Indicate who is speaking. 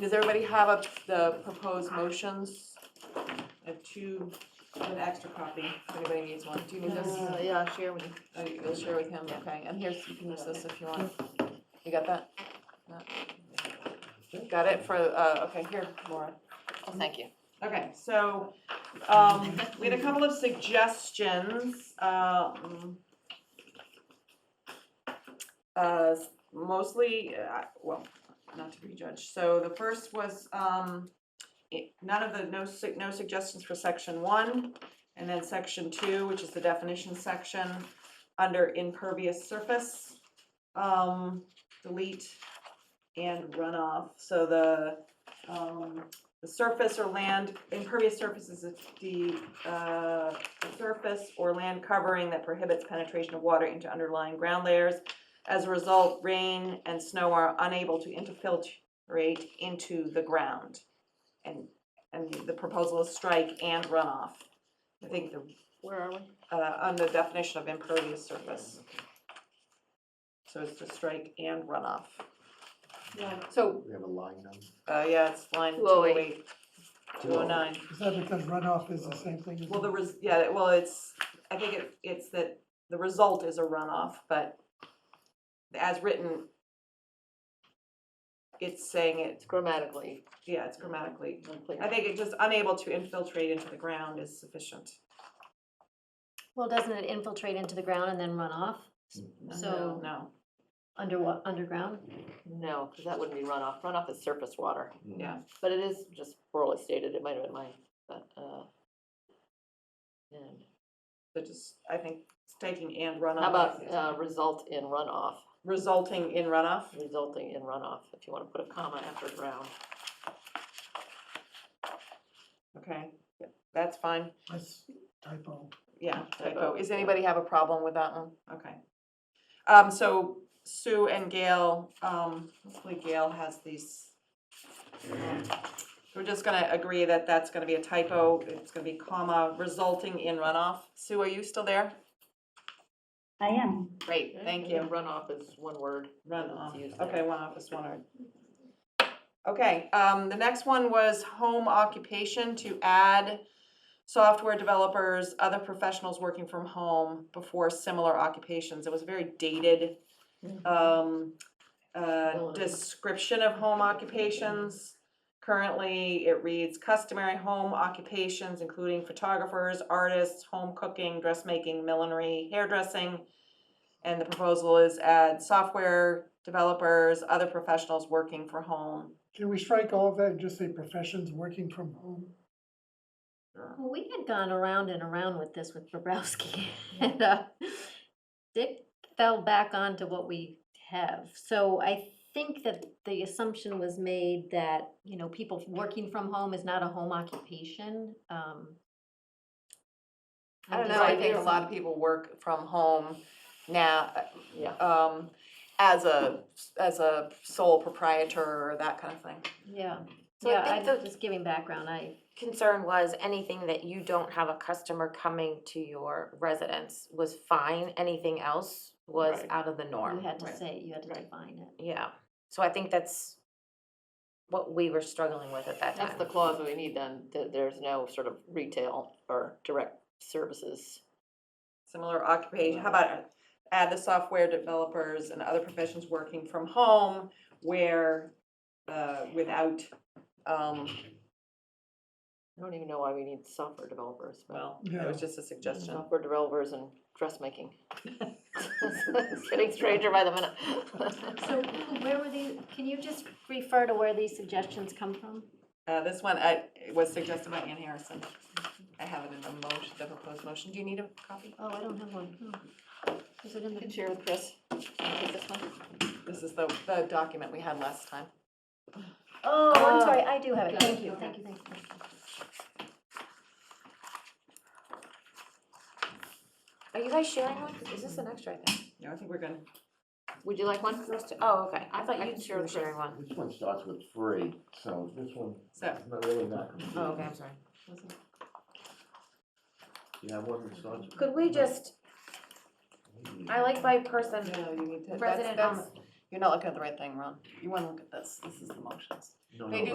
Speaker 1: does everybody have up the proposed motions? I have two, I have an extra copy, if anybody needs one, do you need this?
Speaker 2: Uh, Yeah, share with you.
Speaker 1: Oh, you- You'll share with him, okay, and here's, you can use this if you want, you got that? No? Got it for, uh, okay, here, Laura.
Speaker 2: Oh, thank you.
Speaker 1: Okay, so, um, we had a couple of suggestions, um. Uh, mostly, uh, well, not to prejudge, so the first was, um, it- none of the, no su- no suggestions for section one. And then section two, which is the definition section, under impervious surface, um, delete and runoff, so the, um, the surface or land, impervious surface is the, uh, surface or land covering that prohibits penetration of water into underlying ground layers. As a result, rain and snow are unable to infiltrate into the ground. And, and the proposal is strike and runoff. I think the,
Speaker 2: Where are we?
Speaker 1: uh, on the definition of impervious surface. So it's to strike and runoff. So,
Speaker 3: We have a line number.
Speaker 1: uh, yeah, it's line two oh
Speaker 2: 208.
Speaker 1: eight, two oh nine.
Speaker 4: Is that because runoff is the same thing as?
Speaker 1: Well, the res, yeah, well, it's, I think it, it's that the result is a runoff, but as written, it's saying it,
Speaker 2: It's grammatically
Speaker 1: yeah, it's grammatically, I
Speaker 2: unclear.
Speaker 1: think it just unable to infiltrate into the ground is sufficient.
Speaker 5: Well, doesn't it infiltrate into the ground and then run off? So-
Speaker 1: No,
Speaker 5: Under what, underground?
Speaker 2: No, because that wouldn't be runoff. Runoff is surface water.
Speaker 1: yeah,
Speaker 2: But it is just poorly stated. It might have been mine, but, uh. and
Speaker 1: but just, I think taking and runoff.
Speaker 2: How about, uh, result in runoff,
Speaker 1: Resulting in runoff,
Speaker 2: resulting in runoff, if you want to put a comma after ground.
Speaker 1: okay, that's fine,
Speaker 4: That's typo.
Speaker 1: yeah, typo,
Speaker 2: Typo,
Speaker 1: is
Speaker 2: yeah.
Speaker 1: anybody have a problem with that one? Okay. Um, so Sue and Gail, um, hopefully Gail has these. um, We're just gonna agree that that's gonna be a typo, it's gonna be comma, resulting in runoff. Sue, are you still there?
Speaker 6: I am.
Speaker 1: Great, thank you.
Speaker 2: Runoff is one word.
Speaker 1: Runoff,
Speaker 2: It's used
Speaker 1: okay,
Speaker 2: there.
Speaker 1: one office, one art. Okay, um, the next one was home occupation to add software developers, other professionals working from home before similar occupations. It was a very dated, um, uh,
Speaker 2: Ability.
Speaker 1: description of home occupations. Currently, it reads customary home occupations, including photographers, artists, home cooking, dressmaking, millinery, hairdressing. And the proposal is add software developers, other professionals working for home.
Speaker 4: Can we strike all of that and just say professions working from home?
Speaker 5: Well, we had gone around and around with this with Bobrowski. and uh, Dick fell back onto what we have. So I think that the assumption was made that, you know, people working from home is not a home occupation. um,
Speaker 1: I
Speaker 5: and
Speaker 1: don't know, I
Speaker 5: design-
Speaker 1: think a lot of people work from home now,
Speaker 2: Yeah.
Speaker 1: um, as a, as a sole proprietor or that kind of thing.
Speaker 5: Yeah,
Speaker 7: So I
Speaker 5: yeah,
Speaker 7: think
Speaker 5: I'm
Speaker 7: the-
Speaker 5: just giving background, I,
Speaker 7: concern was anything that you don't have a customer coming to your residence was fine, anything else was
Speaker 2: Right.
Speaker 7: out of the
Speaker 5: you
Speaker 7: norm.
Speaker 5: had to
Speaker 2: right,
Speaker 5: say, you had to
Speaker 2: right.
Speaker 5: define it.
Speaker 7: Yeah, so I think that's what we were struggling with at that time.
Speaker 2: That's the clause we need then, that there's no sort of retail or direct services.
Speaker 1: Similar occupation, how about add the software developers and other professions working from home where, uh, without, um,
Speaker 2: I don't even know why we need software developers, but
Speaker 1: well, it was just a suggestion.
Speaker 2: software developers and dressmaking. It's Getting stranger by the minute.
Speaker 5: So where were these, can you just refer to where these suggestions come from?
Speaker 1: Uh, this one, I, it was suggested by Ann Harrison. I have it in the motion, the proposed motion. Do you need a copy?
Speaker 5: Oh, I don't have one. Oh. Is it in
Speaker 2: You
Speaker 5: the?
Speaker 2: can share with Chris. Take this one.
Speaker 1: This is the, the document we had last time.
Speaker 5: Oh,
Speaker 2: Oh.
Speaker 5: I'm sorry, I do have it,
Speaker 2: Got it,
Speaker 5: thank you,
Speaker 2: okay.
Speaker 5: thank you, thank you.
Speaker 7: Are you guys sharing one? Is this an extra, I think?
Speaker 1: No, I think we're gonna,
Speaker 2: Would you like one?
Speaker 7: Oh, okay, I
Speaker 2: I
Speaker 7: thought
Speaker 2: can
Speaker 7: you two
Speaker 2: share
Speaker 7: were
Speaker 2: with Chris.
Speaker 7: sharing one.
Speaker 3: Hmm. This one starts with three, so this one
Speaker 1: so,
Speaker 3: is not really not complete.
Speaker 7: Oh, okay, I'm sorry.
Speaker 3: You have one that starts with?
Speaker 7: Could we just, I like by person,
Speaker 1: no, you need to, that's,
Speaker 7: President, um,
Speaker 1: that's, you You're not looking at the right thing, Ron. You wanna look at this. This is the motions.
Speaker 3: No,
Speaker 1: They do
Speaker 3: no, but-